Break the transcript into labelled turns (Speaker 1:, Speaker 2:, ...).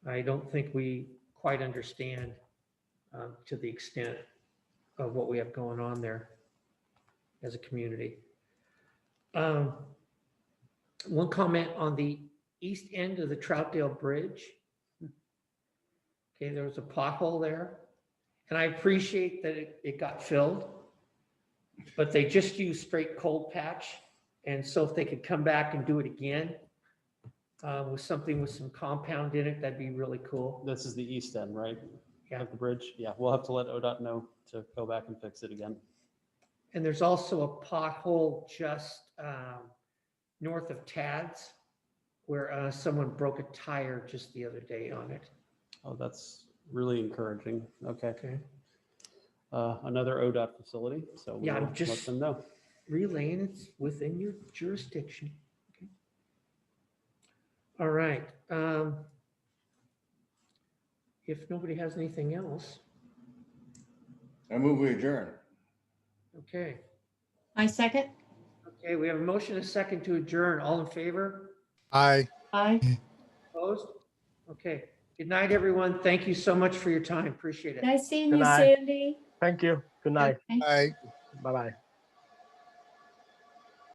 Speaker 1: I don't think we quite understand um, to the extent of what we have going on there as a community. Um, One comment on the east end of the Troutdale Bridge. Okay, there was a pothole there, and I appreciate that it, it got filled. But they just used straight cold patch, and so if they could come back and do it again uh, with something with some compound in it, that'd be really cool.
Speaker 2: This is the east end, right?
Speaker 1: Yeah.
Speaker 2: Of the bridge? Yeah, we'll have to let ODOT know to go back and fix it again.
Speaker 1: And there's also a pothole just um, north of Tad's where uh, someone broke a tire just the other day on it.
Speaker 2: Oh, that's really encouraging. Okay.
Speaker 1: Okay.
Speaker 2: Uh, Another ODOT facility, so
Speaker 1: Yeah, I'm
Speaker 2: we'll let
Speaker 1: just-
Speaker 2: them know.
Speaker 1: Relaying it's within your jurisdiction. Okay. All right. um, If nobody has anything else,
Speaker 3: I move we adjourn.
Speaker 1: okay.
Speaker 4: I second.
Speaker 1: Okay, we have a motion, and a second to adjourn. All in favor?
Speaker 5: Aye.
Speaker 4: Aye.
Speaker 1: Opposed? Okay. Good night, everyone. Thank you so much for your time. Appreciate it.
Speaker 4: Nice seeing
Speaker 6: Good
Speaker 4: you,
Speaker 6: night.
Speaker 4: Sandy.
Speaker 6: Thank you. Good night.
Speaker 4: Okay.
Speaker 5: Aye.
Speaker 6: Bye bye.